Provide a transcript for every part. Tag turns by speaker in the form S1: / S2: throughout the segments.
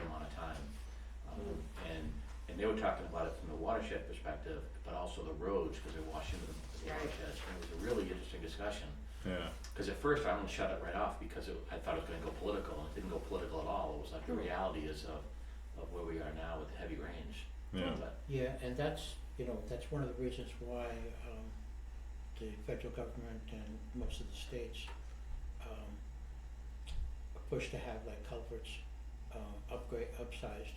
S1: Um, were talking about it from the watershed perspective, but also the roads, because they wash into the
S2: Right.
S1: watersheds. And it was a really interesting discussion,
S3: Yeah.
S1: because at first I almost shut it right off because it, I thought it was gonna go political, and it didn't go political at all. It was like the reality is of, of where we are now with the heavy rains.
S3: Yeah.
S1: But,
S4: Yeah, and that's, you know, that's one of the reasons why um the federal government and most of the states um push to have like culverts um upgrade, upsized.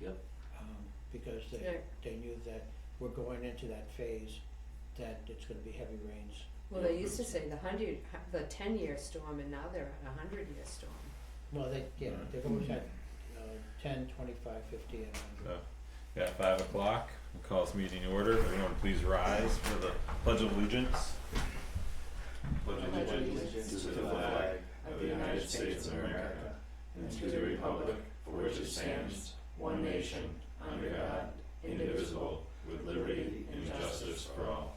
S1: Yep.
S4: Um because
S2: Yeah.
S4: they they knew that we're going into that phase that it's gonna be heavy rains.
S2: Well, they used to say the hundred, the ten-year storm, and now they're at a hundred-year storm.
S4: Well, they, you know,
S3: Right.
S4: they've always had uh ten, twenty-five, fifty and
S3: So,
S4: hundred.
S3: yeah, five o'clock, we'll call this meeting to order, everyone please rise for the pledge of allegiance. Pledge
S2: of allegiance
S3: to
S2: the flag
S3: of the United States of America and to the republic for which it stands, one nation, under God, indivisible, with liberty and justice for all.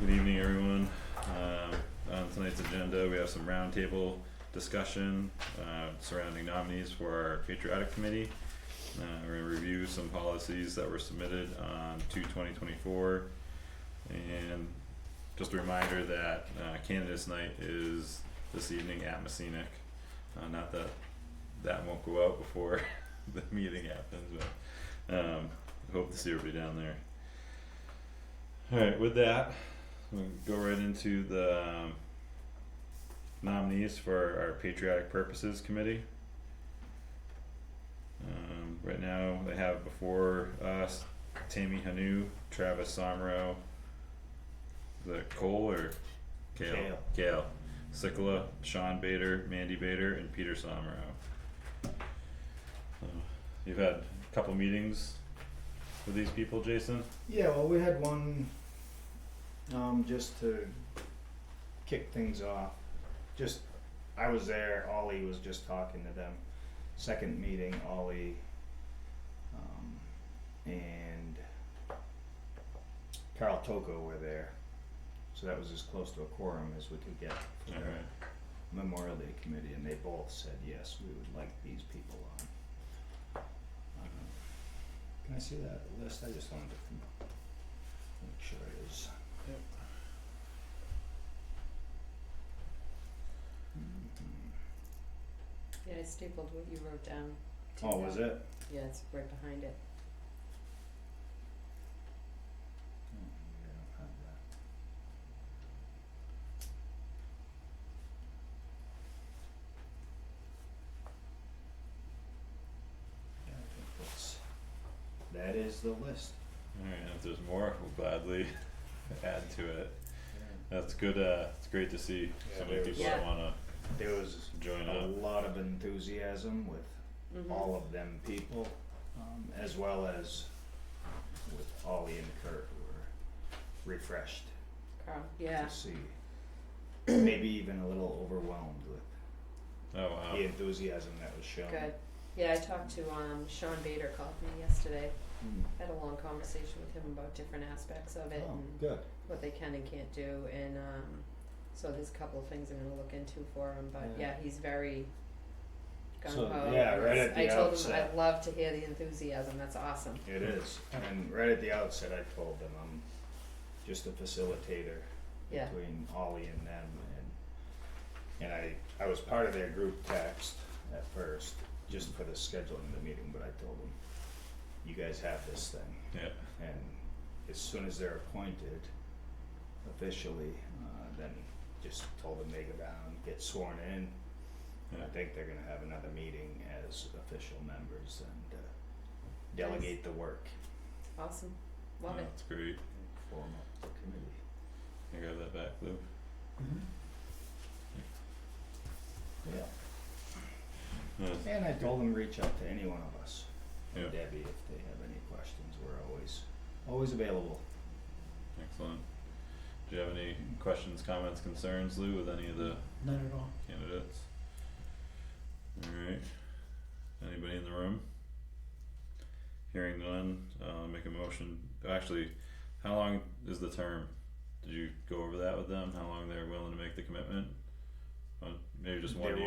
S3: Good evening, everyone. Um, on tonight's agenda, we have some roundtable discussion, uh, surrounding nominees for our patriotic committee. Uh, we're gonna review some policies that were submitted on two twenty twenty-four. And just a reminder that, uh, candidates night is this evening at Messinic. Uh, not that that won't go out before the meeting happens, but um, hope to see everybody down there. Alright, with that, we'll go right into the um, nominees for our Patriotic Purposes Committee. Um, right now, they have before us Tammy Hanu, Travis Somro, the Cole or Kale?
S5: Kale.
S3: Kale. Sikala, Sean Bader, Mandy Bader, and Peter Somro. So, You've had a couple meetings with these people, Jason?
S5: Yeah, well, we had one um, just to kick things off. Just, I was there, Ollie was just talking to them. Second meeting, Ollie um, and Carl Toko were there. So that was as close to a quorum as we could get for the
S3: Alright.
S5: Memorial Day Committee, and they both said, yes, we would like these people on. Um, Can I see that list? I just wanted to com- make sure it is.
S3: Yep.
S5: Mhm.
S2: Yeah, I stapled what you wrote down. to
S5: Oh, was
S2: that.
S5: it?
S2: Yeah, it's right behind it.
S5: Oh, yeah, I don't have that. Yeah, I think that's, that is the list.
S3: Alright, if there's more, we'll gladly add to it. That's good, uh, it's great to see so
S5: Yeah,
S3: many
S5: there's-
S3: people that
S2: Yeah.
S3: wanna
S5: There was
S3: join
S5: a
S3: up.
S5: lot of enthusiasm with
S3: Mm-hmm.
S2: Mhm.
S5: all of them people, um, as well as with Ollie and Kurt who were refreshed
S2: Carl,
S5: to
S2: yeah,
S5: see. Maybe even a little overwhelmed with
S3: Oh, wow.
S5: the enthusiasm that was shown.
S2: good. Yeah, I talked to, um, Sean Bader called me yesterday,
S5: Mm.
S2: had a long conversation with him about different aspects of it
S5: Oh,
S2: and
S5: good.
S2: what they can and can't do, and, um, so there's a couple of things I'm gonna look into for him, but yeah,
S5: Yeah.
S2: he's very gung ho.
S5: So, yeah,
S2: and
S5: right
S2: it's-
S5: at the
S2: I told him
S5: outset.
S2: I'd love to hear the enthusiasm, that's awesome.
S5: It is. And right at the outset, I told them I'm just a facilitator
S2: Yeah.
S5: between Ollie and them, and and I I was part of their group text at first just for the scheduling of the meeting, but I told them you guys have this thing,
S3: Yeah,
S5: and as soon as they're appointed officially, uh, then just told them they go down, get sworn in.
S3: yeah,
S5: I think they're gonna have another meeting as official members and uh, delegate the work.
S2: Awesome,
S3: Yeah,
S2: love it.
S3: that's great.
S5: Form up the committee.
S3: Can you grab that back, Lou?
S5: Yeah.
S3: Yeah.
S5: And I told them reach out to any one of us. and
S3: Yeah.
S5: Debbie, if they have any questions, we're always always available.
S3: Excellent. Do you have any questions, comments, concerns, Lou, with any of the
S4: None at all.
S3: candidates? Alright, anybody in the room? Hearing none, uh, make a motion, actually, how long is the term? Did you go over that with them, how long they're willing to make the commitment? Uh, maybe just one
S5: They
S3: year?